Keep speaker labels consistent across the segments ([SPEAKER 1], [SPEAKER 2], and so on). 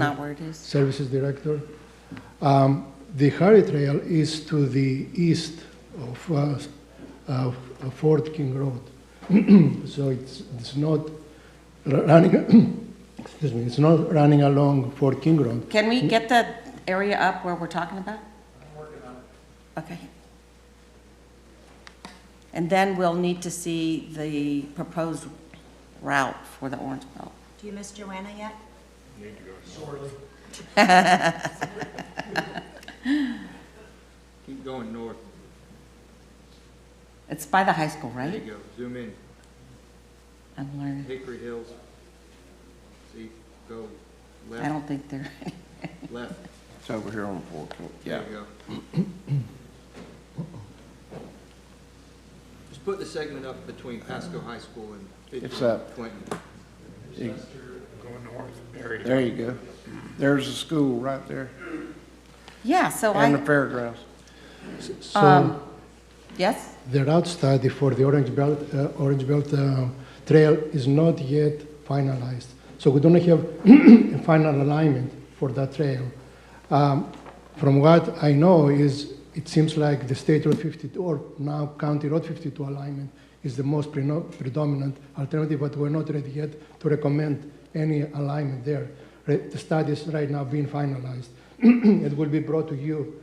[SPEAKER 1] Not where it is.
[SPEAKER 2] Services Director. Um, The Harry Trail is to the east of uh, of- of Fort King Road. So it's, it's not r- running, excuse me, it's not running along Fort King Road.
[SPEAKER 1] Can we get the area up where we're talking about? I'm working on it. Okay. And then we'll need to see the proposed route for the Orange Belt.
[SPEAKER 3] Do you miss Joanna yet?
[SPEAKER 4] Keep going north,
[SPEAKER 1] It's by the high school,
[SPEAKER 4] there you
[SPEAKER 1] right?
[SPEAKER 4] go, zoom in,
[SPEAKER 1] I'm learning.
[SPEAKER 4] Hickory Hills. See, go
[SPEAKER 1] I
[SPEAKER 4] left,
[SPEAKER 1] don't think they're,
[SPEAKER 4] left,
[SPEAKER 5] It's over here on Fourteenth, yeah.
[SPEAKER 4] there you go. Just put the segment up between Pasco High School and
[SPEAKER 5] It's
[SPEAKER 4] Fitchburg,
[SPEAKER 5] up.
[SPEAKER 4] Clinton.
[SPEAKER 5] There you go. There's a school right there
[SPEAKER 1] yeah, so
[SPEAKER 5] and the
[SPEAKER 1] I,
[SPEAKER 5] fairgrounds.
[SPEAKER 2] So
[SPEAKER 1] yes?
[SPEAKER 2] the route study for the Orange Belt, uh, Orange Belt um, Trail is not yet finalized. So we don't have a final alignment for that trail. Um, From what I know is, it seems like the State Road 52, or now County Road 52 alignment is the most preno- predominant alternative, but we're not ready yet to recommend any alignment there. Re- The study is right now being finalized. It will be brought to you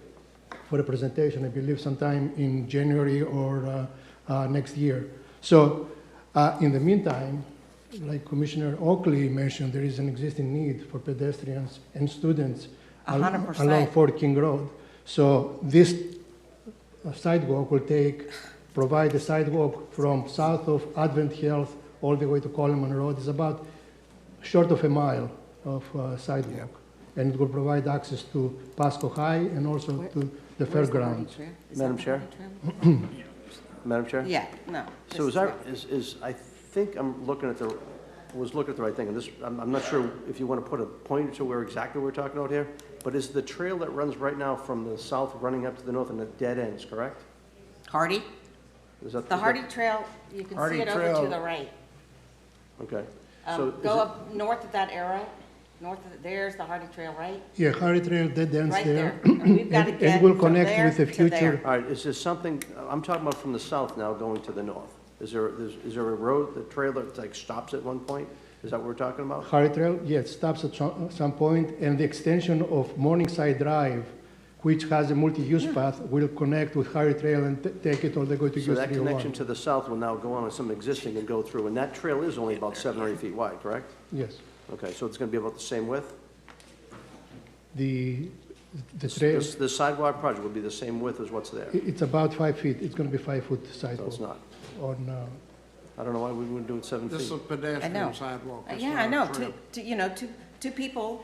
[SPEAKER 2] for a presentation, I believe sometime in January or uh, uh, next year. So, uh, in the meantime, like Commissioner Oakley mentioned, there is an existing need for pedestrians and students
[SPEAKER 1] A
[SPEAKER 2] al-
[SPEAKER 1] hundred percent.
[SPEAKER 2] along Fort King Road. So this uh, sidewalk will take, provide the sidewalk from south of Advent Health all the way to Coleman Road. It's about short of a mile of uh, sidewalk. And it will provide access to Pasco High and also
[SPEAKER 1] Where-
[SPEAKER 2] to the
[SPEAKER 1] Where's the Hardy
[SPEAKER 2] fairgrounds.
[SPEAKER 1] Trail? Is
[SPEAKER 6] Madam
[SPEAKER 1] that
[SPEAKER 6] Chair?
[SPEAKER 1] Hardy Trail?
[SPEAKER 6] Madam Chair?
[SPEAKER 1] Yeah, no. this
[SPEAKER 6] So is that,
[SPEAKER 1] not-
[SPEAKER 6] is, is, I think I'm looking at the, was looking at the right thing, and this, I'm, I'm not sure if you want to put a point to where exactly we're talking about here, but is the trail that runs right now from the south running up to the north and it dead ends, correct?
[SPEAKER 1] Hardy?
[SPEAKER 6] Is that?
[SPEAKER 1] The Hardy Trail, you can see
[SPEAKER 5] Hardy
[SPEAKER 1] it over to
[SPEAKER 5] Trail.
[SPEAKER 1] the right.
[SPEAKER 6] Okay. So
[SPEAKER 1] Um,
[SPEAKER 6] is
[SPEAKER 1] Go
[SPEAKER 6] it-
[SPEAKER 1] up north of that arrow, north of, there's the Hardy Trail, right?
[SPEAKER 2] Yeah, Harry Trail dead ends
[SPEAKER 1] Right
[SPEAKER 2] there.
[SPEAKER 1] there. We've got to
[SPEAKER 2] And-
[SPEAKER 1] get
[SPEAKER 2] And will
[SPEAKER 1] from
[SPEAKER 2] connect
[SPEAKER 1] there
[SPEAKER 2] with the
[SPEAKER 1] to
[SPEAKER 2] future.
[SPEAKER 1] there.
[SPEAKER 6] All right, is there something, I'm talking about from the south now going to the north. Is there, is is there a road, the trail that like stops at one point? Is that what we're talking about?
[SPEAKER 2] Harry Trail, yes, stops at some some point, and the extension of Morningside Drive, which has a multi-use path, will connect with Harry Trail and t- take it all the way to
[SPEAKER 6] So
[SPEAKER 2] US
[SPEAKER 6] that
[SPEAKER 2] 301.
[SPEAKER 6] connection to the south will now go on with some existing and go through, and that trail is only about seven or eight feet wide, correct?
[SPEAKER 2] Yes,
[SPEAKER 6] Okay, so it's gonna be about the same width?
[SPEAKER 2] the, the trail,
[SPEAKER 6] This- The sidewalk project will be the same width as what's there?
[SPEAKER 2] i- it's about five feet, it's gonna be five-foot
[SPEAKER 6] No, it's
[SPEAKER 2] sidewalk
[SPEAKER 6] not.
[SPEAKER 2] on, uh,
[SPEAKER 6] I don't know why we wouldn't do it seven
[SPEAKER 5] This is a
[SPEAKER 6] feet.
[SPEAKER 1] I know.
[SPEAKER 5] pedestrian sidewalk.
[SPEAKER 1] Uh,
[SPEAKER 5] It's
[SPEAKER 1] Yeah,
[SPEAKER 5] not
[SPEAKER 1] I
[SPEAKER 5] a
[SPEAKER 1] know, two,
[SPEAKER 5] trail.
[SPEAKER 1] two, you know, two, two people,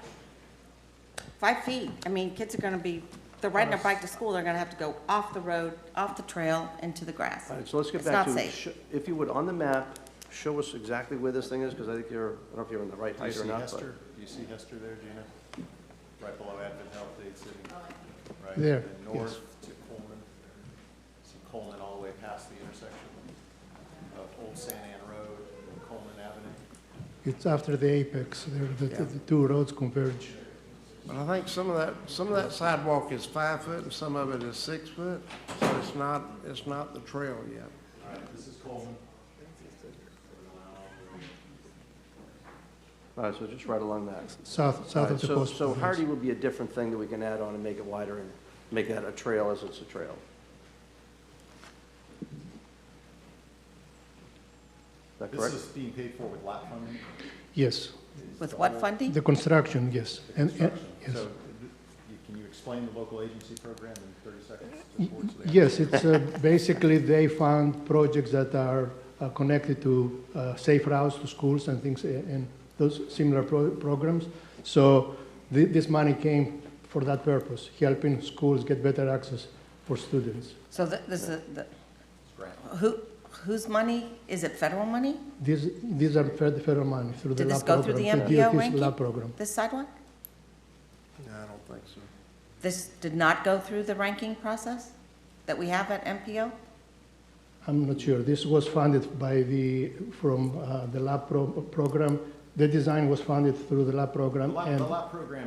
[SPEAKER 1] five feet. I mean, kids are gonna be, they're riding their bike to school, they're gonna have to go off the road, off the trail, into the grass.
[SPEAKER 6] All right, so let's get
[SPEAKER 1] It's
[SPEAKER 6] back to.
[SPEAKER 1] not safe.
[SPEAKER 6] sh- If you would, on the map, show us exactly where this thing is, because I think you're, I don't know if you're in the right
[SPEAKER 7] Do you
[SPEAKER 6] height or
[SPEAKER 7] see
[SPEAKER 6] not, but.
[SPEAKER 7] Hester? Do you see Hester there, Gina? Right below Advent Health Aid City. Right,
[SPEAKER 2] There,
[SPEAKER 7] and then North to Coleman. See Coleman all the way past the intersection of Old San Ann Road and Coleman Avenue.
[SPEAKER 2] it's after the apex, there, the- the the two roads converge.
[SPEAKER 5] But I think some of that, some of that sidewalk is five foot and some of it is six foot, so it's not, it's not the trail yet.
[SPEAKER 7] All right, this is Coleman.
[SPEAKER 6] All right, so just right along that.
[SPEAKER 2] South,
[SPEAKER 6] All
[SPEAKER 2] south
[SPEAKER 6] right,
[SPEAKER 2] of the
[SPEAKER 6] So,
[SPEAKER 2] hospital.
[SPEAKER 6] so
[SPEAKER 2] yes.
[SPEAKER 6] Hardy will be a different thing that we can add on and make it wider and make that a trail as it's a trail. Is that
[SPEAKER 7] This
[SPEAKER 6] correct?
[SPEAKER 7] is being paid for with lot funding.
[SPEAKER 2] Yes,
[SPEAKER 1] With what funding?
[SPEAKER 2] the construction, yes. And, and- yes.
[SPEAKER 7] So, th- you- can you explain the local agency program in thirty seconds? to
[SPEAKER 2] Y-
[SPEAKER 7] the board so they
[SPEAKER 2] Yes, it's uh, basically they fund projects that are uh, connected to uh, safe routes to schools and things, uh, and those similar pro- programs. So thi- this money came for that purpose, helping schools get better access for students.
[SPEAKER 1] So th- this is, the-
[SPEAKER 7] grant.
[SPEAKER 1] who, whose money? Is it federal money,
[SPEAKER 2] These, these are fed- federal money through the
[SPEAKER 1] Did this
[SPEAKER 2] lab
[SPEAKER 1] go through
[SPEAKER 2] program.
[SPEAKER 1] the MPO
[SPEAKER 2] DOT's
[SPEAKER 1] ranking?
[SPEAKER 2] lab program.
[SPEAKER 1] this sidewalk?
[SPEAKER 5] No, I don't think so.
[SPEAKER 1] This did not go through the ranking process that we have at MPO?
[SPEAKER 2] I'm not sure. This was funded by the, from uh, the lab pro- program. The design was funded through the lab
[SPEAKER 7] The
[SPEAKER 2] program.
[SPEAKER 7] lot,
[SPEAKER 2] and-
[SPEAKER 7] the lot program